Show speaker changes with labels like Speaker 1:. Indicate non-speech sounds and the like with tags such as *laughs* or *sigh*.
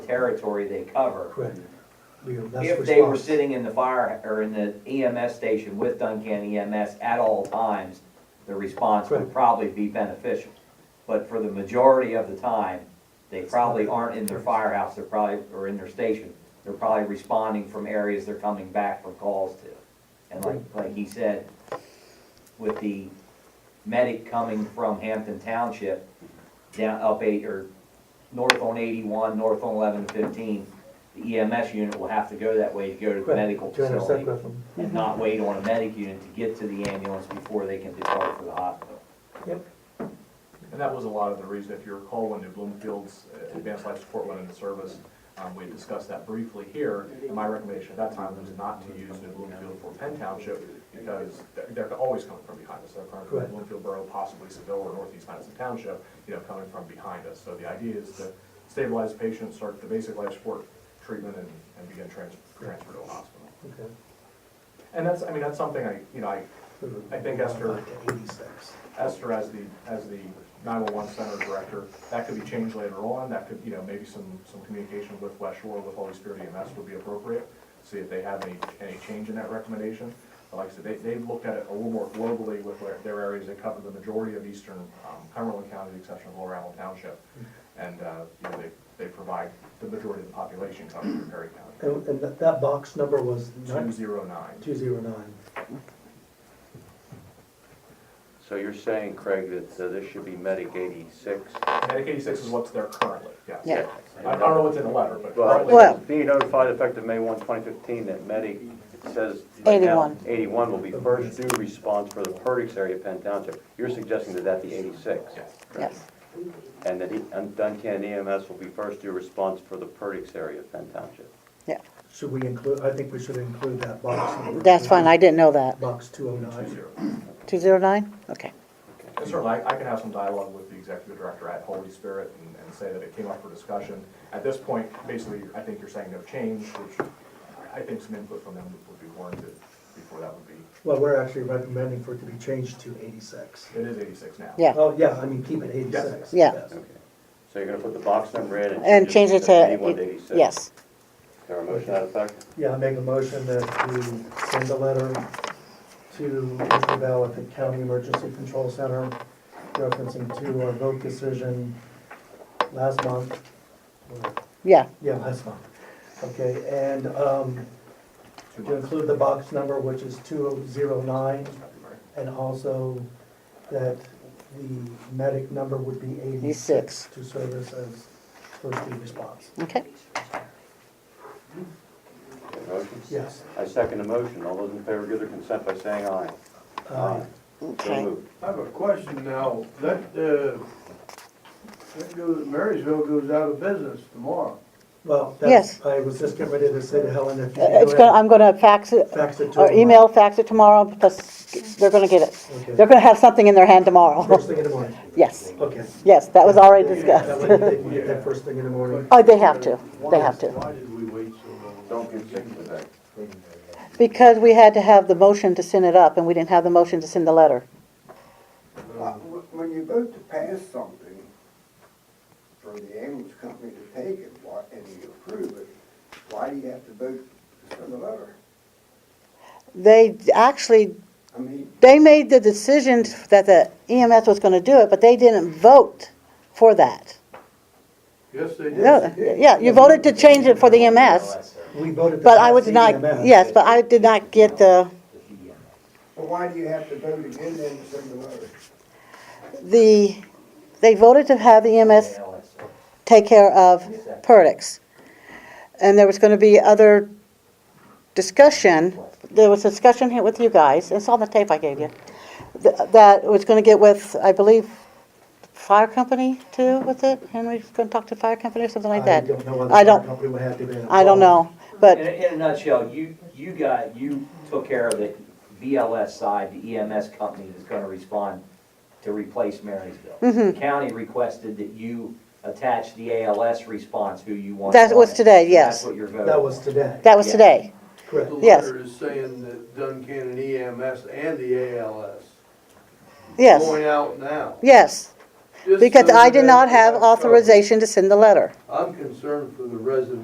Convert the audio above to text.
Speaker 1: territory they cover.
Speaker 2: Correct. We are less
Speaker 1: If they were
Speaker 2: responsible.
Speaker 1: sitting in the fire, or in the EMS station with Duncan EMS at all times, the response would
Speaker 2: Correct.
Speaker 1: probably be beneficial. But for the majority of the time, they probably aren't in their firehouse, they're probably, or in their station. They're probably responding from areas they're coming back from calls to. And like, like he said, with the medic coming from Hampton Township, down up eight, or north on eighty-one, north on eleven to fifteen, the EMS unit will have to go that way to go to the
Speaker 2: Correct.
Speaker 1: medical
Speaker 2: Join us
Speaker 1: facility
Speaker 2: separate from-
Speaker 1: and not wait on a medic unit to get to the ambulance before they can depart for the hospital.
Speaker 2: Yep,
Speaker 3: And that was a lot of the reason, if you recall, when New Bloomfield's uh, Advanced Life Support went into service, um, we discussed that briefly here. And My recommendation at that time was not to use New Bloomfield for Penn Township because they're, they're always coming from behind us. They're coming from
Speaker 2: Correct.
Speaker 3: Bloomfield Borough, possibly Seville or Northeast Madison Township, you know, coming from behind us. So the idea is to stabilize patients, start the basic life support treatment and, and begin trans, transfer to a hospital.
Speaker 2: okay.
Speaker 3: And that's, I mean, that's something I, you know, I, I think Esther-
Speaker 2: Back to Eighty-six.
Speaker 3: Esther as the, as the 911 center director. That could be changed later on, that could, you know, maybe some, some communication with West Shore, with Holy Spirit EMS would be appropriate, see if they have any, any change in that recommendation. But like I said, they, they've looked at it a little more globally with their, their areas, they cover the majority of eastern um, Cumberland County, with the exception of Lower Allen Township. And, uh, you know, they, they provide the majority of the population covered in Perry County.
Speaker 2: And, and that, that box number was nine,
Speaker 3: 209.
Speaker 2: two zero nine.
Speaker 4: So you're saying, Craig, that uh, this should be Medic 86?
Speaker 3: Medicaid 86 is what's there currently, yes.
Speaker 5: Yeah.
Speaker 3: I I don't know what's in the letter, but currently.
Speaker 5: Well-
Speaker 4: Well, being notified effective May 1, 2015, that Medic, it says. right now,
Speaker 5: 81.
Speaker 4: 81 will be first due response for the Perdix area of Penn Township. You're suggesting that that be 86?
Speaker 3: Yes.
Speaker 5: Yes,
Speaker 4: And that E- and Duncan EMS will be first due response for the Perdix area of Penn Township?
Speaker 5: yeah,
Speaker 2: Should we include, I think we should include that box number.
Speaker 5: that's fine, I didn't know that.
Speaker 2: Box two oh nine.
Speaker 3: 209.
Speaker 5: 209? Okay.
Speaker 3: And certainly, I I can have some dialogue with the executive director at Holy Spirit and- and say that it came up for discussion. At this point, basically, I think you're saying no change, which I I think some input from them would be warranted before that would be,
Speaker 2: Well, we're actually recommending for it to be changed to eighty-six.
Speaker 3: it is 86 now.
Speaker 5: Yeah.
Speaker 2: Oh, yeah, I mean, keep it eighty-six.
Speaker 5: Yeah.
Speaker 2: yes.
Speaker 4: Okay. So you're going to put the box number in and.
Speaker 5: And change it
Speaker 4: from 81 to
Speaker 5: to,
Speaker 4: 86?
Speaker 5: yes,
Speaker 4: Is there a motion to that effect?
Speaker 2: Yeah, I make a motion that we send a letter to Isabel at the County Emergency Control Center referencing to our vote decision last month. or-
Speaker 5: yeah,
Speaker 2: Yeah, last month. Okay, and um, to include the box number, which is 209, and also that the medic number would be 86
Speaker 5: 86.
Speaker 2: to service as first due response.
Speaker 5: okay.
Speaker 4: Is there a Motion?
Speaker 2: Yes.
Speaker 4: I second the motion. All those in favor give their consent by saying aye.
Speaker 2: Uh,
Speaker 4: So
Speaker 5: Okay.
Speaker 4: moved.
Speaker 6: I have a question now. That, uh, that goes, Marysville goes out of business tomorrow.
Speaker 2: Well,
Speaker 5: Yes.
Speaker 2: that's, I was just getting ready to say to Helen, if you
Speaker 5: Uh, It's
Speaker 2: could
Speaker 5: gonna,
Speaker 2: go ahead
Speaker 5: I'm gonna fax it,
Speaker 2: and fax it to her.
Speaker 5: or email, fax it tomorrow, because they're gonna get it.
Speaker 2: Okay.
Speaker 5: They're gonna have something in their hand tomorrow.
Speaker 2: First thing in the morning.
Speaker 5: *laughs* Yes,
Speaker 2: Okay.
Speaker 5: yes, that was already
Speaker 2: That
Speaker 5: discussed.
Speaker 2: way they can get that first thing in the morning.
Speaker 5: Oh, they have to, they have to.
Speaker 6: Why did we wait so long?
Speaker 4: Don't get sick with that.
Speaker 5: Because we had to have the motion to send it up, and we didn't have the motion to send the letter.
Speaker 7: Uh, wh- When you vote to pass something for the ambulance company to take it, why, and you approve it, why do you have to vote to send a letter?
Speaker 5: They actually
Speaker 7: I mean,
Speaker 5: they made the decision that the EMS was gonna do it, but they didn't vote for that.
Speaker 6: Yes, they did.
Speaker 5: No, yeah, you voted to change it for the EMS,
Speaker 2: We voted to
Speaker 5: but I
Speaker 2: pass
Speaker 5: was
Speaker 2: the E
Speaker 5: not,
Speaker 2: EMS.
Speaker 5: yes, but I did not get the,
Speaker 1: E
Speaker 7: but why do you have to vote again then to send a letter?
Speaker 5: the, they voted to have the EMS take care of Perdix. And there was gonna be other discussion, there was discussion here with you guys, it's on the tape I gave you, th- that was gonna get with, I believe, fire company too, with it? Henry's gonna talk to fire company or something like that?
Speaker 2: I don't know whether
Speaker 5: I
Speaker 2: the
Speaker 5: don't-
Speaker 2: company would have to be
Speaker 5: I don't know,
Speaker 1: In,
Speaker 5: but,
Speaker 1: a- in a nutshell, you, you got, you took care of the BLS side, the EMS company that's gonna respond to replace Marysville.
Speaker 5: Mm-hmm.
Speaker 1: The County requested that you attach the ALS response, who you want.
Speaker 5: That was
Speaker 1: on it.
Speaker 5: today,
Speaker 1: And That's
Speaker 5: yes.
Speaker 1: what you're voting.
Speaker 2: That was today.
Speaker 5: that was
Speaker 1: Yeah.
Speaker 5: today.
Speaker 2: Correct.
Speaker 5: Yes.
Speaker 6: The letter is saying that Duncan and EMS and the ALS.
Speaker 5: Yes,
Speaker 6: Going out now.
Speaker 5: yes. Just
Speaker 6: because
Speaker 5: so
Speaker 6: I did
Speaker 5: that-
Speaker 6: not have authorization to send the letter.
Speaker 5: I'm concerned for the residents